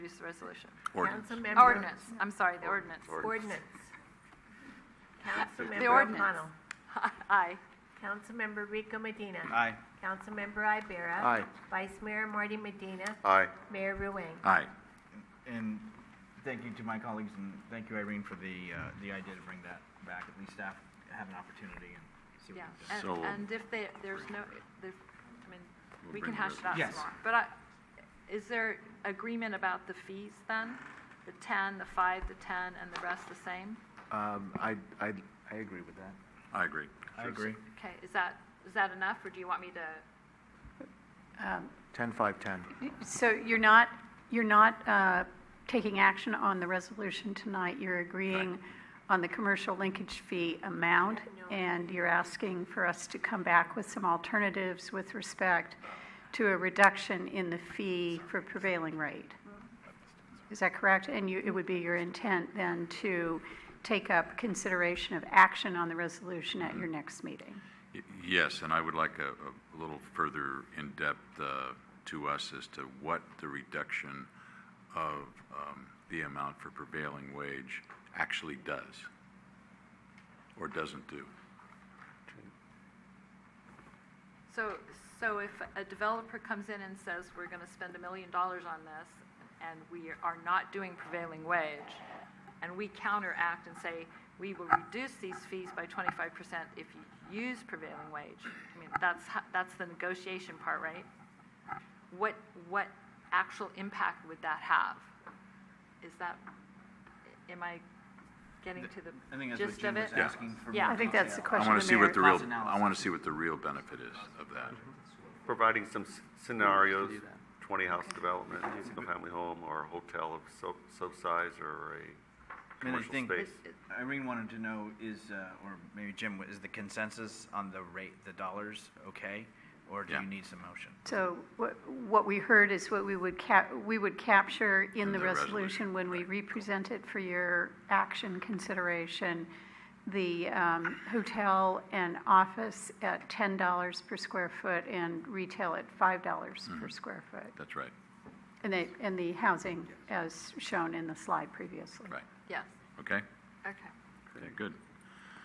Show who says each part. Speaker 1: introduce the resolution?
Speaker 2: Councilmember.
Speaker 1: Ordinance, I'm sorry, the ordinance.
Speaker 2: Ordinance.
Speaker 1: The
Speaker 2: Councilmember
Speaker 1: ordinance.
Speaker 2: O'Connell.
Speaker 1: Aye.
Speaker 2: Councilmember Rico Medina.
Speaker 3: Aye.
Speaker 2: Councilmember Ibera.
Speaker 4: Aye.
Speaker 2: Vice Mayor Marty Medina.
Speaker 4: Aye.
Speaker 2: Mayor Ruane.
Speaker 4: Aye.
Speaker 3: And thank you to my colleagues, and thank you, Irene, for the, uh, the idea to bring that back. At least staff have an opportunity and see what
Speaker 1: Yeah,
Speaker 3: we
Speaker 1: and,
Speaker 4: So we'll-
Speaker 1: and if they, there's no, the, I mean,
Speaker 4: We'll
Speaker 1: we
Speaker 4: bring
Speaker 1: can hash
Speaker 4: the
Speaker 1: it out
Speaker 3: res-
Speaker 1: some
Speaker 3: Yes.
Speaker 1: more. But I, is there agreement about the fees then? The ten, the five, the ten, and the rest the same?
Speaker 5: Um, I, I, I agree with that.
Speaker 4: I agree.
Speaker 3: I agree.
Speaker 1: Okay, is that, is that enough, or do you want me to,
Speaker 6: Um,
Speaker 5: Ten, five, ten.
Speaker 6: So you're not, you're not uh, taking action on the resolution tonight, you're agreeing on the commercial linkage fee amount, and you're asking for us to come back with some alternatives with respect to a reduction in the fee for prevailing rate. Is that correct? And you, it would be your intent then to take up consideration of action on the resolution at your next meeting?
Speaker 7: Y- Yes, and I would like a, a little further in-depth uh, to us as to what the reduction of um, the amount for prevailing wage actually does or doesn't do.
Speaker 1: so, so if a developer comes in and says, we're gonna spend a million dollars on this, and we are not doing prevailing wage, and we counteract and say, we will reduce these fees by twenty-five percent if you use prevailing wage, I mean, that's, ho- that's the negotiation part, right? What, what actual impact would that have? Is that, am I getting to
Speaker 3: I think
Speaker 1: the
Speaker 3: that's what
Speaker 1: gist
Speaker 3: Jim
Speaker 1: of it?
Speaker 3: was asking for.
Speaker 1: Yeah.
Speaker 3: more
Speaker 1: I
Speaker 6: think
Speaker 3: detail.
Speaker 6: that's the
Speaker 7: I
Speaker 6: Question
Speaker 7: want
Speaker 6: to
Speaker 7: to see what
Speaker 6: Mayor.
Speaker 7: the real,
Speaker 3: Cost
Speaker 7: I
Speaker 3: analysis. Mm-hmm.
Speaker 7: want to see what the real benefit is of that.
Speaker 4: Providing some
Speaker 8: scenarios, 20 house development, single family home, or a hotel of so, so size, or a
Speaker 3: And I
Speaker 8: commercial
Speaker 3: think
Speaker 8: space.
Speaker 3: Irene wanted to know is, uh, or maybe Jim, is the consensus on the rate, the dollars, okay? Or do
Speaker 7: Yeah.
Speaker 3: you need some motion?
Speaker 6: So what, what we heard is what we would cap, we would capture in the
Speaker 7: the
Speaker 6: resolution
Speaker 7: resolution,
Speaker 6: when we
Speaker 7: right.
Speaker 6: represent it for your action consideration, the um, hotel and office at ten dollars per square foot and retail at five dollars per square foot.
Speaker 7: That's right,
Speaker 6: And they, and the housing as shown in the slide previously.
Speaker 7: right,
Speaker 1: Yes,
Speaker 7: okay?
Speaker 1: okay.
Speaker 7: Okay, good.